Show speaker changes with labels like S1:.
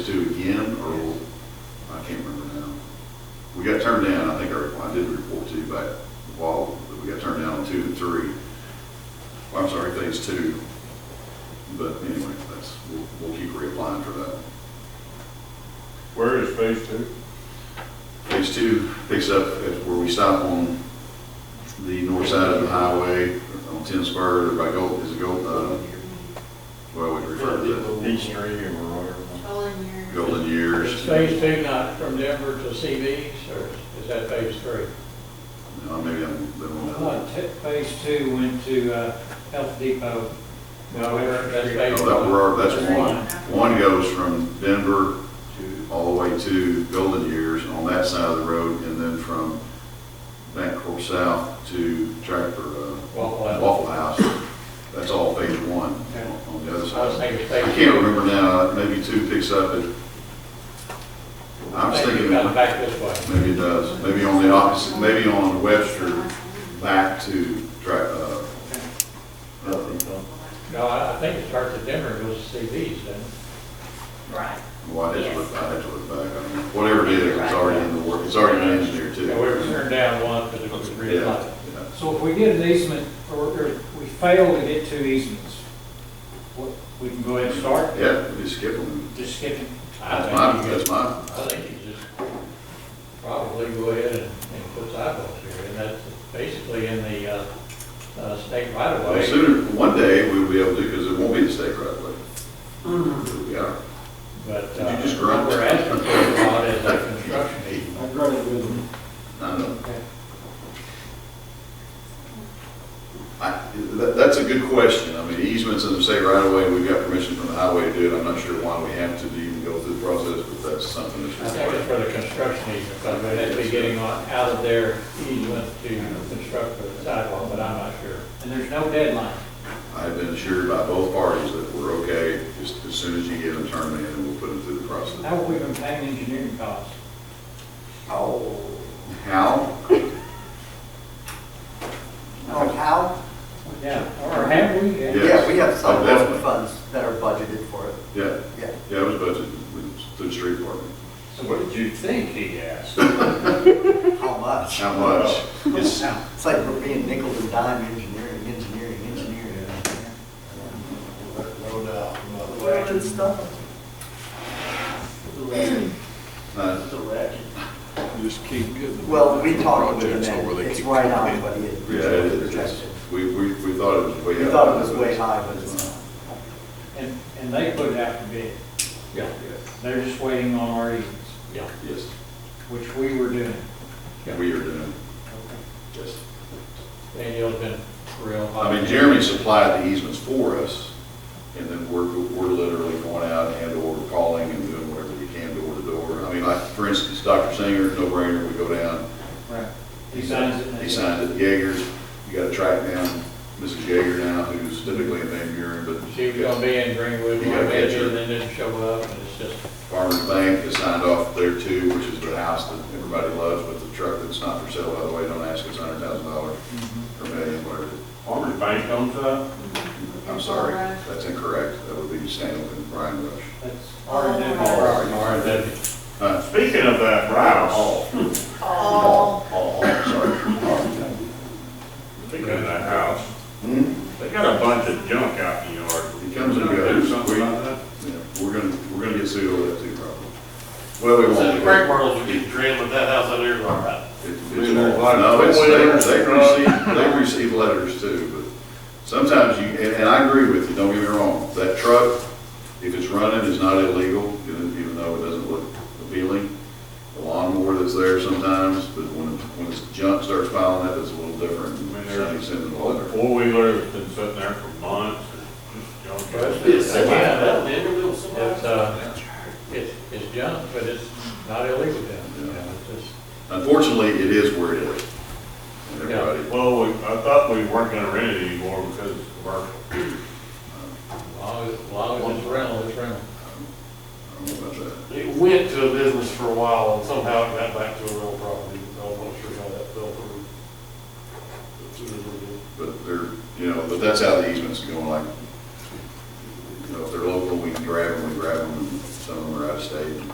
S1: to again, or, I can't remember now. We got turned down, I think, or I did report to you back a while, but we got turned down on two and three. Well, I'm sorry, phase two. But anyway, that's, we'll, we'll keep reapplying for that.
S2: Where is phase two?
S1: Phase two picks up at where we stop on the north side of the highway, on Ten Spur, by Gold, is it Gold, uh, well, we refer to that,
S2: East Stream or whatever.
S3: Controlling your.
S1: Golden Years.
S4: Is phase two not from Denver to CB's, or is that phase three?
S1: No, maybe I'm, the
S5: I
S1: wrong.
S4: Uh,
S5: thought t- phase two went to uh, Health Depot.
S4: That's
S1: No,
S4: phase
S1: Oh, that,
S4: one.
S1: we're, that's one. One goes from Denver
S2: Two.
S1: all the way to Golden Years on that side of the road, and then from Bancorp South to Tractor, uh,
S4: Waffle House.
S1: Waffle House. That's all phase one on- on the other
S4: I was
S1: side.
S4: thinking
S1: I
S4: phase.
S1: can't remember now, maybe two picks up at, I was
S4: Maybe
S1: thinking,
S4: it comes back this way.
S1: maybe it does, maybe on the opposite, maybe on Webster back to Track, uh, uh,
S4: No, I I think it starts at Denver and goes to CB's, and
S3: Right.
S1: well, I had to look, I had to look back, I mean, whatever it is, it's already in the work, it's already been engineered too.
S4: we were turned down one because it was
S1: Yeah,
S4: realigned.
S1: yeah.
S5: So if we get an easement, or or we fail to get two easements, what- we can go ahead and start,
S1: Yeah, we just skip them.
S5: just skip it.
S1: That's
S4: I
S1: my,
S4: think you
S1: that's
S4: just,
S1: my,
S4: I think you just probably go ahead and, and put sidewalks here, and that's basically in the, uh, uh, state right of
S1: well,
S4: way.
S1: sooner, one day we'll be able to, because it won't be the state right away. It'll be ours.
S4: But,
S1: Did you
S4: uh,
S1: just
S4: what
S1: grunt?
S4: we're asking for a lot is a construction easement.
S5: I agree with them.
S1: I know.
S5: Okay.
S1: I, that, that's a good question. I mean, easements in the state right away, we've got permission from the highway to do it. I'm not sure why we have to even go through the process, but that's something
S4: I
S1: that's
S4: think it's
S1: required.
S4: for the construction easement, but they would be getting on, out of their easement to construct the sidewalk, but I'm not sure.
S5: And there's no deadline.
S1: I've been assured by both parties that we're okay, just as soon as you get them turned in, and we'll put them through the process.
S5: How have we been paying engineering costs?
S6: Oh,
S1: How?
S6: oh, how?
S5: Yeah, or have we?
S1: Yes.
S6: Yeah, we have
S1: Oh, definitely.
S6: sidewalk funds that are budgeted for it,
S1: Yeah,
S6: yeah.
S1: yeah, it was budgeted with- through the street department.
S2: So what did you think he asked?
S6: How much?
S1: How much? It's, uh,
S6: It's like we're being nickel and dime engineering, engineering, engineering.
S2: No doubt.
S6: Good stuff.
S1: uh,
S2: Just keep getting.
S6: Well, we talked with them, and it's right on what he
S1: Yeah,
S6: had
S1: it is. It's-
S6: projected.
S1: We, we, we thought it was way.
S6: We
S1: out.
S6: thought it was way high, but it's not.
S5: And, and they put it out to bid.
S4: Yeah.
S5: They're just waiting on our easements,
S4: Yeah.
S1: Yes,
S5: which we were doing.
S1: we are doing, yes.
S4: Daniel's been real.
S1: I mean, Jeremy supplied the easements for us, and then we're, we're literally going out and/or calling and doing whatever we can door to door. I mean, like, for instance, Dr. Singer, no brainer, we go down,
S5: Right. He signs it. and they-
S1: He signed at Jaegers. You gotta track down Mrs. Jaeger now, who's typically in Van Buren, but
S4: She was gonna be in Greenwood,
S1: You
S4: one
S1: gotta catch her.
S4: and then didn't show up, and it's just,
S1: Farmers Bank has signed off there too, which is the house that everybody loves, but the truck that's not for sale, by the way, don't ask, it's hundred thousand dollars
S5: Mm-hmm.
S1: or million, whatever.
S2: Farmers Bank owns that?
S1: I'm sorry, that's incorrect. That would be Stanley and Brian Rush.
S5: That's our
S3: All
S5: endeavor.
S3: right.
S4: or that,
S1: Huh?
S2: Speaking of that house,
S3: All,
S1: Oh, I'm sorry.
S2: speaking of that house, they got a bunch of junk out in the yard.
S1: It comes and
S2: Do
S1: goes.
S2: something about that?
S1: Yeah, We're gonna, we're gonna get sued over that too, probably. Well, we
S7: So
S1: won't.
S7: the crack barrels would get drilled with that house out there, all right.
S1: It's- it's all- No, it's, they, they receive, they receive letters too, but sometimes you, and, and I agree with you, don't get me wrong. That truck, if it's running, is not illegal, even even though it doesn't look appealing. The lawnmower that's there sometimes, but when, when this junk starts piling up, it's a little different. than
S2: Man, they're-
S1: Somebody sending a letter.
S2: Four wheeler has been sitting there for months and just junk.
S4: Well,
S7: It's somebody, that nigger will somebody.
S4: it's, uh, it's, it's junk, but it's not illegal junk, you know, it's just,
S1: Unfortunately, it is where it is. And
S4: Yeah.
S1: everybody,
S2: Well, we- I thought we weren't gonna rent it anymore because it's commercial.
S4: as long as, as long as it's rental, it's rental.
S1: I don't know about that.
S7: It went to a business for a while and somehow it got back to a real property. I'm not sure how that fell through. It's a little bit-
S1: But they're, you know, but that's how the easements are going, like, you know, if they're local, we can grab them, we grab them, and some of them are out of state, say,